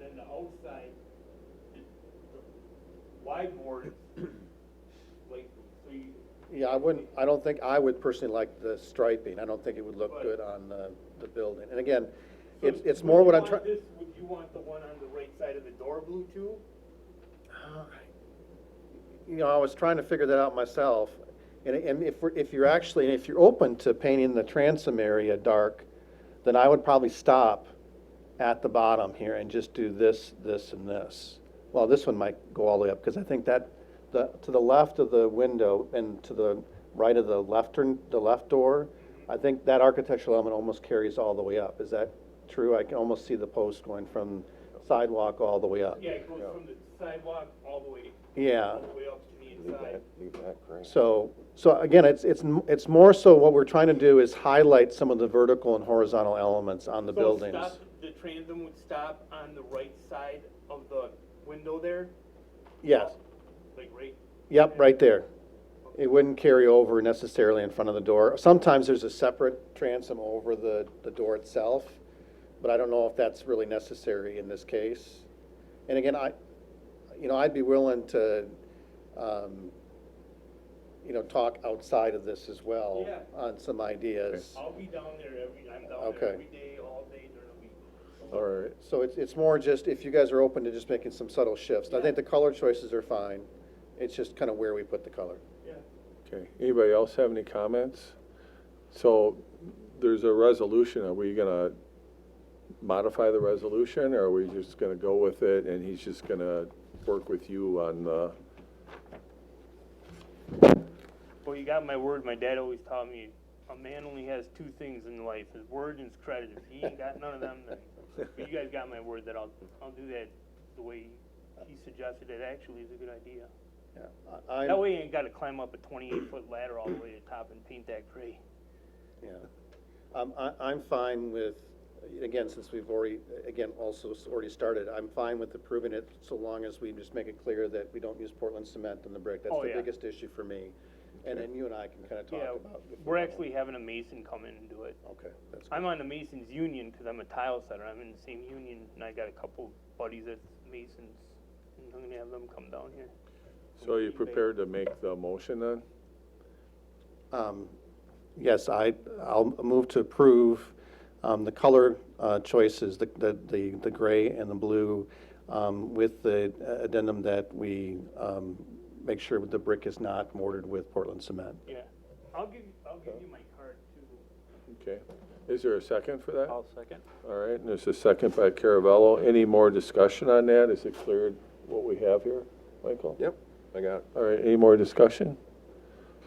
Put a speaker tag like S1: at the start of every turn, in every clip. S1: and the outside, the the wide board is like, so you,
S2: Yeah, I wouldn't, I don't think, I would personally like the striping. I don't think it would look good on the, the building. And again,
S1: so
S2: it's, it's
S1: would
S2: more
S1: you
S2: what I'm
S1: want
S2: trying.
S1: this- Would you want the one on the right side of the door blue too?
S2: Uh, You know, I was trying to figure that out myself. And, and if, we're- if you're actually, if you're open to painting the transom area dark, then I would probably stop at the bottom here and just do this, this, and this. Well, this one might go all the way up, because I think that, the, to the left of the window and to the right of the left turn, the left door, I think that architectural element almost carries all the way up. Is that true? I can almost see the post going from sidewalk all the way up.
S1: Yeah, it goes from the sidewalk all the way,
S2: Yeah.
S1: all the way up to the inside.
S3: Leave that green.
S2: So, so again, it's, it's, m- it's more so what we're trying to do is highlight some of the vertical and horizontal elements on the
S1: So
S2: buildings.
S1: stop- The transom would stop on the right side of the window there?
S2: Yes,
S1: Like right
S2: yep, right there. It wouldn't carry over necessarily in front of the door. Sometimes there's a separate transom over the, the door itself, but I don't know if that's really necessary in this case. And again, I, you know, I'd be willing to, um, you know, talk outside of this as well
S1: Yeah.
S2: on some ideas.
S1: I'll be down there every, I'm down
S2: Okay.
S1: there every day, all day during the week.
S2: Or, so it's, it's more just if you guys are open to just making some subtle shifts. I think the color choices are fine. It's just kind of where we put the color.
S1: Yeah.
S4: Okay, anybody else have any comments? So there's a resolution, are we gonna modify the resolution, or are we just gonna go with it, and he's just gonna work with you on the,
S1: Well, you got my word, my dad always taught me, a man only has two things in life, his word and his credit, if he ain't got none of them, then, but you guys got my word that I'll, I'll do that the way he suggested, it actually is a good idea.
S2: Yeah, I,
S1: That
S2: I'm-
S1: way you ain't gotta climb up a twenty-eight foot ladder all the way to the top and paint that gray.
S2: yeah. I'm, I- I'm fine with, again, since we've already, again, also s- already started, I'm fine with approving it so long as we just make it clear that we don't use Portland cement in the brick. That's
S1: Oh,
S2: the
S1: yeah.
S2: biggest issue for me. And then you and I can kind of talk
S1: Yeah,
S2: about. if we
S1: we're
S2: want.
S1: actually having a mason come in and do it.
S2: Okay, that's,
S1: I'm on the Masons Union because I'm a tile setter. I'm in the same union, and I got a couple buddies that's Masons, and I'm gonna have them come down here.
S4: so are you prepared to make the motion then?
S2: um, yes, I, I'll move to approve, um, the color, uh, choices, the, the, the the gray and the blue, um, with the addendum that we, um, make sure that the brick is not mortared with Portland cement.
S1: Yeah, I'll give I'll give you my card too.
S4: Okay, is there a second for that?
S1: second.
S4: All right, and there's a second by Caravello, any more discussion on that, is it clear what we have here, Michael?
S3: Yep, I got it.
S4: All right, any more discussion?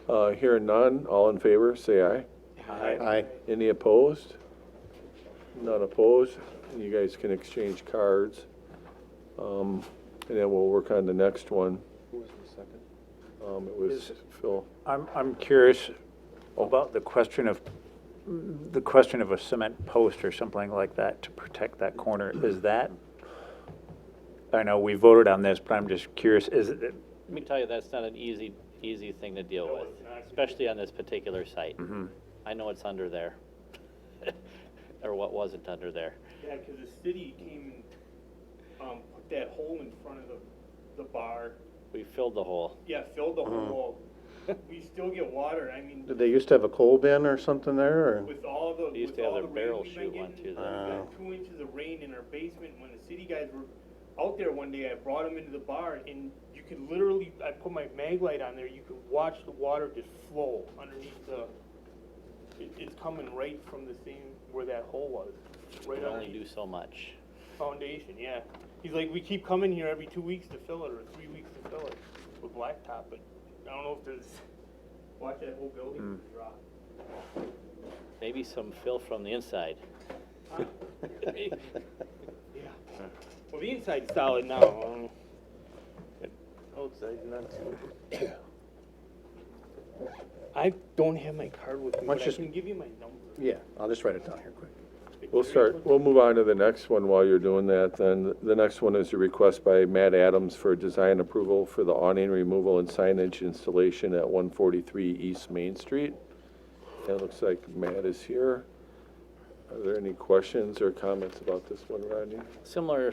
S4: Uh, hearing none, all in favor, say aye.
S2: Aye.
S4: Any opposed? None opposed? You guys can exchange cards. Um, and then we'll work on the next one.
S3: Who was the second?
S4: Um, it was
S5: Is-
S4: Phil.
S5: I'm, I'm curious about the question of, the question of a cement post or something like that to protect that corner. Is that, I know we voted on this, but I'm just curious, is it,
S6: Let me tell you, that's not an easy, easy thing to deal with, especially on this particular site. I know it's under there, or what wasn't under there.
S1: Yeah, because the city came and um, put that hole in front of the the bar.
S6: We filled the hole.
S1: Yeah, filled the whole hole. We still get water. I mean,
S2: Mm-hmm. Did they used to have a coal bin or something there, or?
S1: With all the,
S6: They used
S1: with
S6: to have
S1: all the rain
S6: their barrel
S1: we've
S6: chute
S1: been
S6: one,
S1: getting, we
S6: too,
S2: there.
S1: got two inches of rain in our basement, when the city guys were out there one day, I brought them into the bar, and you could literally, I put my mag light on there, you could watch the water just flow underneath the, it, it's coming right from the same, where that hole was,
S6: We
S1: right
S6: can only
S1: underneath
S6: do so much.
S1: the foundation, yeah. He's like, we keep coming here every two weeks to fill it, or three weeks to fill it, with blacktop, but I don't know if there's, watch that whole building drop.
S6: Maybe some fill from the inside.
S1: Yeah. Well, the inside's solid now. um, Outside's not so. I don't have my card with me,
S2: Why
S1: but I
S2: don't you-
S1: can give you my number.
S2: Yeah, I'll just write it down here quick.
S4: We'll start, we'll move on to the next one while you're doing that. Then the next one is a request by Matt Adams for design approval for the awning removal and signage installation at 143 East Main Street. And It looks like Matt is here. Are there any questions or comments about this one, Rodney?
S6: Similar